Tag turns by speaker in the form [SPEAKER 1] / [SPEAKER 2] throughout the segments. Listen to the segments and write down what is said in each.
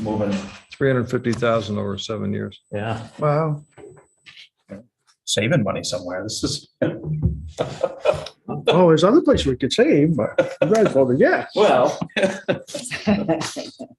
[SPEAKER 1] moving.
[SPEAKER 2] three hundred and fifty thousand over seven years.
[SPEAKER 1] Yeah,
[SPEAKER 3] Wow.
[SPEAKER 1] saving money somewhere. This is.
[SPEAKER 3] Oh, there's other places we could save, but you guys voted yes.
[SPEAKER 1] Well.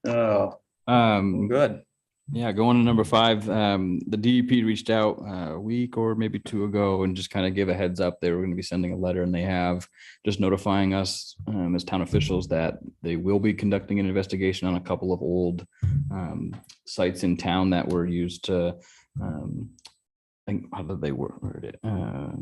[SPEAKER 1] Oh,
[SPEAKER 4] Um,
[SPEAKER 1] good.
[SPEAKER 4] yeah, going to number five, um, the DEP reached out uh, a week or maybe two ago and just kind of give a heads up. They were going to be sending a letter and they have just notifying us um, as town officials that they will be conducting an investigation on a couple of old um, sites in town that were used to, um, I think, how did they word word it? Uh,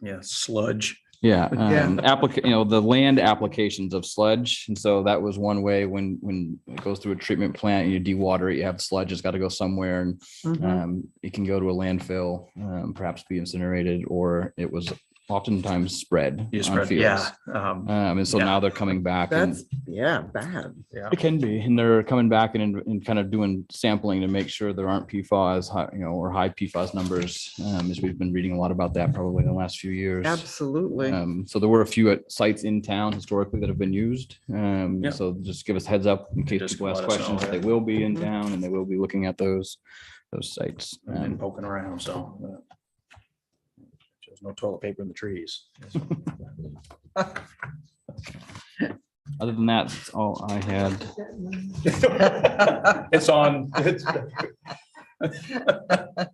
[SPEAKER 1] Yeah, sludge.
[SPEAKER 4] Yeah,
[SPEAKER 3] Yeah.
[SPEAKER 4] um, applica- you know, the land applications of sludge. And so that was one way when, when it goes through a treatment plant and you dewater it, you have sludge, it's got to go somewhere and
[SPEAKER 1] Mm-hmm.
[SPEAKER 4] um, it can go to a landfill, um, perhaps be incinerated, or it was oftentimes spread.
[SPEAKER 1] You
[SPEAKER 4] on
[SPEAKER 1] spread,
[SPEAKER 4] fields.
[SPEAKER 1] yeah. um,
[SPEAKER 4] Um, and so
[SPEAKER 1] Yeah.
[SPEAKER 4] now they're coming back and
[SPEAKER 5] That's, yeah, bad.
[SPEAKER 1] Yeah.
[SPEAKER 4] it can be, and they're coming back and, and kind of doing sampling to make sure there aren't PFAS, high- you know, or high PFAS numbers. Um, as we've been reading a lot about that probably in the last few years.
[SPEAKER 5] Absolutely.
[SPEAKER 4] Um, so there were a few at sites in town historically that have been used. Um,
[SPEAKER 1] Yeah.
[SPEAKER 4] so just give us heads up in case
[SPEAKER 1] just
[SPEAKER 4] people ask
[SPEAKER 1] let us know,
[SPEAKER 4] questions. They
[SPEAKER 1] yeah.
[SPEAKER 4] will be in
[SPEAKER 5] Mhm.
[SPEAKER 4] town and they will be looking at those, those sites.
[SPEAKER 1] I've been
[SPEAKER 4] Um,
[SPEAKER 1] poking around, so. uh, There's no toilet paper in the trees.
[SPEAKER 4] Other than that, that's all I had.
[SPEAKER 1] It's on. it's-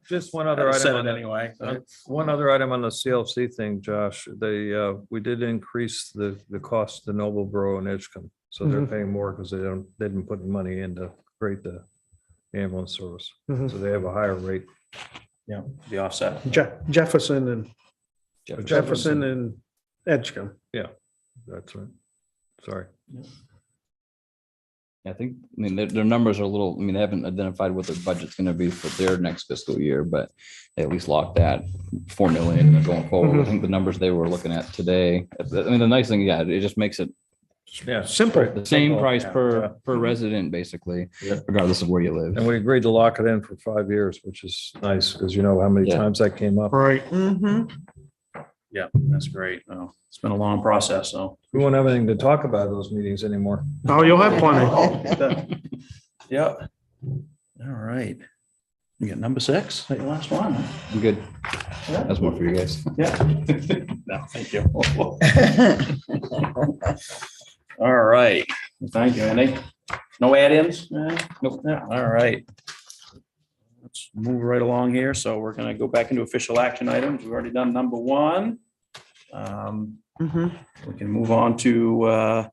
[SPEAKER 2] Just one other
[SPEAKER 1] I
[SPEAKER 2] item.
[SPEAKER 1] Said
[SPEAKER 2] on
[SPEAKER 1] it
[SPEAKER 2] that.
[SPEAKER 1] anyway. so.
[SPEAKER 2] One other item on the CLC thing, Josh, they, uh, we did increase the, the cost to Noble Borough and Edgecombe. So they're
[SPEAKER 3] Mhm.
[SPEAKER 2] paying more because they don't, they didn't put money in to create the ambulance service.
[SPEAKER 3] Mhm.
[SPEAKER 2] So they have a higher rate.
[SPEAKER 1] Yeah, the offset.
[SPEAKER 3] Je- Jefferson and
[SPEAKER 4] Jeff.
[SPEAKER 3] Jefferson and Edgecombe.
[SPEAKER 2] That's right. Sorry.
[SPEAKER 4] I think, I mean, their, their numbers are a little, I mean, they haven't identified what their budget's gonna be for their next fiscal year, but they at least locked that four million going forward. I
[SPEAKER 3] Mhm.
[SPEAKER 4] think the numbers they were looking at today, I mean, the nice thing, yeah, it just makes it
[SPEAKER 2] Yeah.
[SPEAKER 3] Simple.
[SPEAKER 4] the same
[SPEAKER 1] Simple,
[SPEAKER 4] price
[SPEAKER 1] yeah,
[SPEAKER 4] per,
[SPEAKER 1] yeah.
[SPEAKER 4] per resident, basically,
[SPEAKER 1] Yeah.
[SPEAKER 4] regardless of where you live.
[SPEAKER 2] And we agreed to lock it in for five years, which is nice because you know how many
[SPEAKER 4] Yeah.
[SPEAKER 2] times that came up.
[SPEAKER 3] Right.
[SPEAKER 5] Mm-hmm.
[SPEAKER 1] Yeah, that's great. Oh, It's been a long process, so.
[SPEAKER 2] We won't have anything to talk about at those meetings anymore.
[SPEAKER 3] Oh, you'll have plenty.
[SPEAKER 1] Yeah. All right. You got number six, that your last one?
[SPEAKER 4] I'm good.
[SPEAKER 1] Yeah.
[SPEAKER 4] That's more for you guys.
[SPEAKER 1] Yeah. No, thank you. All right. Thank you, Andy. No add-ins? Nope. All right. Let's move right along here. So we're gonna go back into official action items. We've already done number one. Um,
[SPEAKER 5] Mm-hmm.
[SPEAKER 1] we can move on to uh,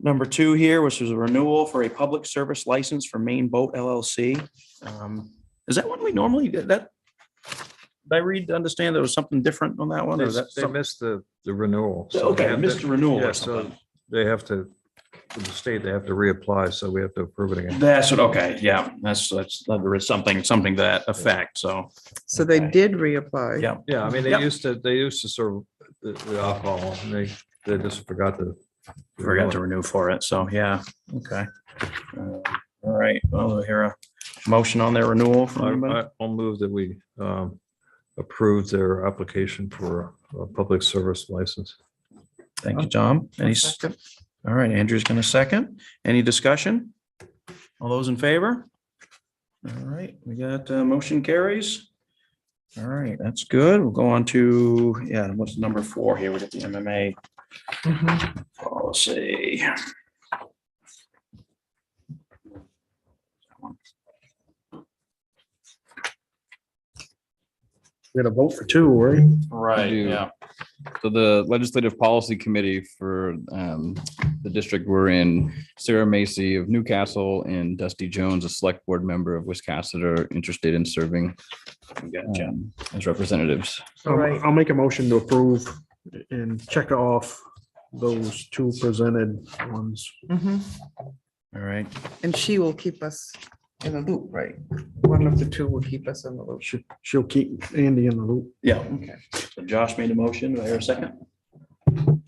[SPEAKER 1] number two here, which is a renewal for a public service license for Maine Boat LLC. Um, Is that one we normally, did that? Did I read, to understand there was something different on
[SPEAKER 2] Oh,
[SPEAKER 1] that one? or is that
[SPEAKER 2] They
[SPEAKER 1] some-
[SPEAKER 2] missed the, the renewal.
[SPEAKER 1] Oh,
[SPEAKER 2] so
[SPEAKER 1] Okay,
[SPEAKER 2] they have to-
[SPEAKER 1] Mr. Renewal
[SPEAKER 2] Yeah,
[SPEAKER 1] or
[SPEAKER 2] so
[SPEAKER 1] something.
[SPEAKER 2] They have to, with the state, they have to reapply, so we have to approve it again.
[SPEAKER 1] That's what, okay, yeah, that's, that's, there is something, something to that effect, so.
[SPEAKER 5] So they
[SPEAKER 1] Okay.
[SPEAKER 5] did reapply.
[SPEAKER 1] Yeah.
[SPEAKER 2] Yeah, I mean,
[SPEAKER 1] Yep.
[SPEAKER 2] they used to, they used to serve the the alcohol, and they, they just forgot to.
[SPEAKER 1] Forgot to renew for it, so yeah, okay. Uh, All right, well, I hear a motion on their renewal from
[SPEAKER 2] I-
[SPEAKER 1] anybody?
[SPEAKER 2] I- I'll move that we um, approve their application for a public service license.
[SPEAKER 1] Thank you, Tom. Any, s- all right, Andrew's gonna second. Any discussion? All those in favor? All right, we got, uh, motion carries. All right, that's good. We'll go on to, yeah, what's number four here? We got the MMA
[SPEAKER 5] Mhm.
[SPEAKER 1] policy.
[SPEAKER 3] We're gonna vote for two, right?
[SPEAKER 1] Right,
[SPEAKER 4] do. So the Legislative Policy Committee for um, the district we're in, Sarah Macy of Newcastle and Dusty Jones, a select board member of Wisconsin, are interested in serving
[SPEAKER 1] Gotcha.
[SPEAKER 4] um, as representatives.
[SPEAKER 3] Um,
[SPEAKER 5] Right.
[SPEAKER 3] I'll make a motion to approve and check off those two presented ones.
[SPEAKER 5] Mhm.
[SPEAKER 1] All right,
[SPEAKER 5] And she will keep us in the loop, right? One of the two will keep us in the loop.
[SPEAKER 3] She, she'll keep Andy in the loop.
[SPEAKER 1] yeah.
[SPEAKER 5] Okay.
[SPEAKER 1] So Josh made a motion. Do I hear a second?
[SPEAKER 5] I'll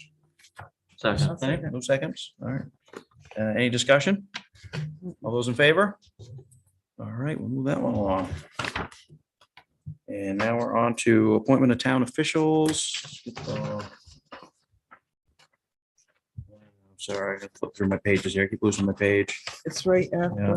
[SPEAKER 1] Second.
[SPEAKER 5] second.
[SPEAKER 1] No seconds? All right. Uh, Any discussion? All those in favor? All right, we'll move that one along. And now we're on to appointment of town officials. Uh, Sorry, I flipped through my pages here. I keep losing my page.
[SPEAKER 5] It's right after.